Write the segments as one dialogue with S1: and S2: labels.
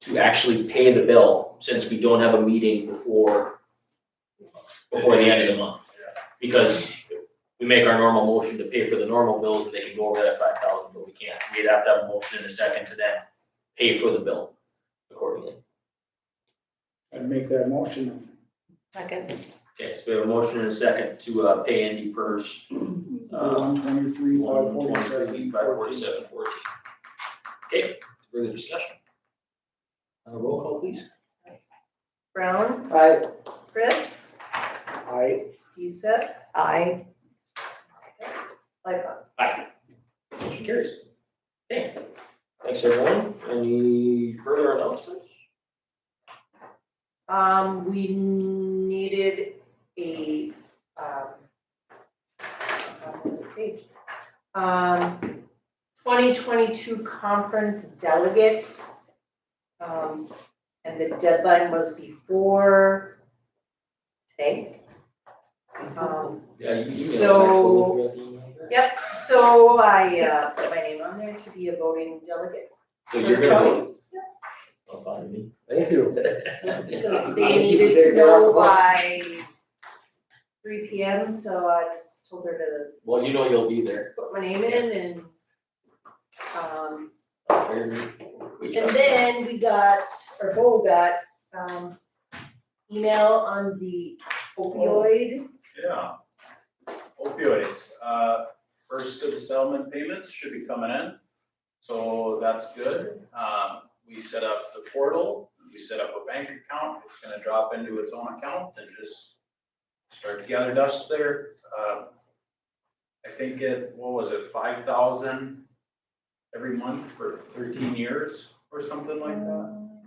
S1: to actually pay the bill, since we don't have a meeting before, before the end of the month. Because we make our normal motion to pay for the normal bills, and they can go over that five thousand, but we can't, we'd have to have a motion in a second to then pay for the bill accordingly.
S2: I'd make that motion.
S3: Second.
S1: Okay, so we have a motion in a second to, uh, pay Andy Purse, uh,
S2: One twenty-three, five
S1: one
S2: forty-seven.
S1: twenty-three, five forty-seven, fourteen. Okay, further discussion? Uh, roll call, please.
S3: Brown,
S2: Aye.
S3: Brett,
S2: Aye.
S3: Deesep. I. Lightfoot.
S1: Aye. Motion carries. Okay, thanks everyone. Any further announcements?
S3: Um, we needed a, um, on the page. um, twenty twenty-two conference delegate. Um, and the deadline was before today. Um,
S1: Yeah, you emailed.
S3: So-
S1: me, I actually looked at the email.
S3: Yep, so I uh, put my name on there to be a voting delegate.
S1: So you're gonna vote? That's fine with me.
S4: Thank you.
S3: Because they needed to know by three P M, so I just told her to
S1: Well, you know you'll be there.
S3: put my name in and um,
S1: We
S3: and
S1: trust
S3: then we got, or Bo got um, email on the opioid.
S5: Yeah. Opioids, uh, first of the settlement payments should be coming in, so that's good. Um, we set up the portal, we set up a bank account, it's gonna drop into its own account and just start to gather dust there. Um, I think it, what was it, five thousand every month for thirteen years or something like that?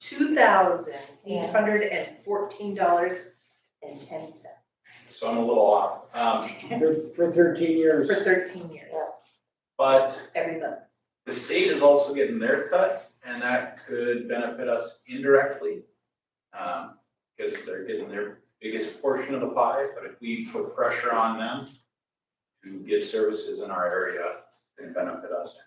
S3: Two thousand eight hundred and fourteen dollars and ten cents
S5: So I'm a little off, um,
S2: For- For thirteen years.
S3: for thirteen years,
S5: but
S3: every month.
S5: The state is also getting their cut, and that could benefit us indirectly. Um, because they're getting their biggest portion of the pie, but if we put pressure on them to give services in our area, then benefit us.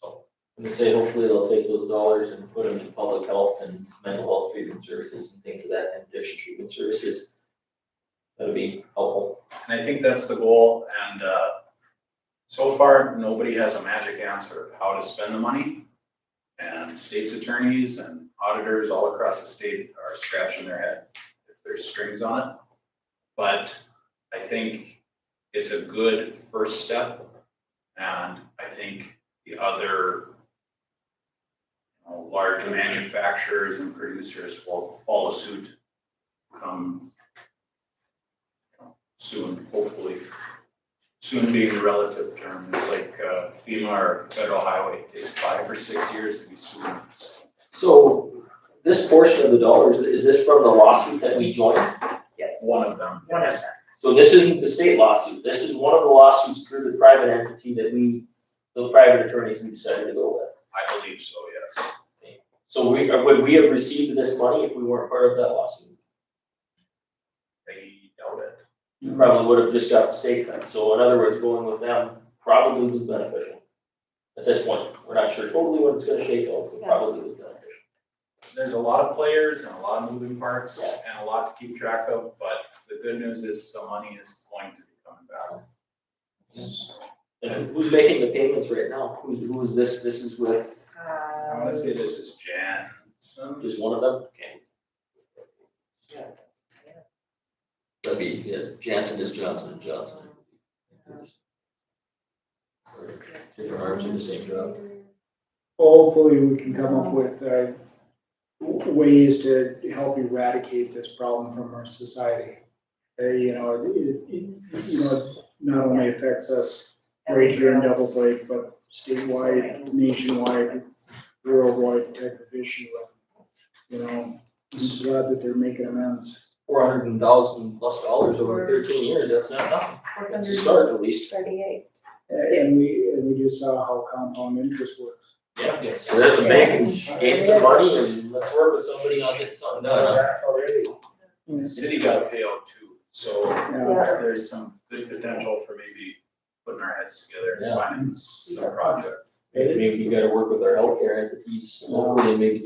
S5: So,
S1: And they say hopefully they'll take those dollars and put them in public health and mental health treatment services and things of that, and addiction treatment services. That'd be helpful.
S5: and I think that's the goal, and, uh, so far, nobody has a magic answer of how to spend the money. And state's attorneys and auditors all across the state are scratching their head if there's strings on it. But I think it's a good first step. And I think the other you know, large manufacturers and producers will follow suit come soon, hopefully. Soon being a relative term, it's like uh, FEMA or federal highway, it takes five or six years to be soon.
S1: So this portion of the dollars, is this from the lawsuit that we joined?
S3: Yes.
S5: One of them.
S3: One of them.
S1: So this isn't the state lawsuit, this is one of the lawsuits through the private entity that we, the private attorneys we decided to go with.
S5: I believe so, yes.
S1: So we, or would we have received this money if we weren't part of that lawsuit?
S5: They doubt it.
S1: We Probably would have just got the state then, so in other words, going with them probably was beneficial. At this point, we're not sure totally what it's gonna shake out, but
S3: Yeah.
S1: probably was beneficial.
S5: There's a lot of players and a lot of moving parts and a lot to keep track of, but the good news is some money is going to be coming back.
S1: And who's making the payments right now? Who's, who is this, this is with
S5: I
S3: Um,
S5: wanna say this is Jansen.
S1: just one of them?
S3: yeah.
S1: That'd be, yeah, Jansen is Johnson and Johnson.
S3: Um,
S1: Different arms in the same job.
S2: Hopefully, we can come up with, uh, w- ways to help eradicate this problem from our society. Uh, you know, it, it- it, you know, it not only affects us right here in Devils Lake, but statewide, nationwide, worldwide type of issue. You know, I'm glad that they're making amends.
S1: Four hundred and thousand plus dollars over thirteen years, that's not nothing. That's a start at least.
S3: Thirty-eight.
S2: A- And we, and we just saw how compound interest works.
S1: Yeah, yes. So there's the bank, who gained some money and let's work with somebody, I'll get something done.
S5: The city got a payout too, so
S2: Yeah.
S5: there's some good potential for maybe putting our heads together and
S1: Yeah.
S5: finding some project.
S1: Maybe we gotta work with our healthcare entities, hopefully maybe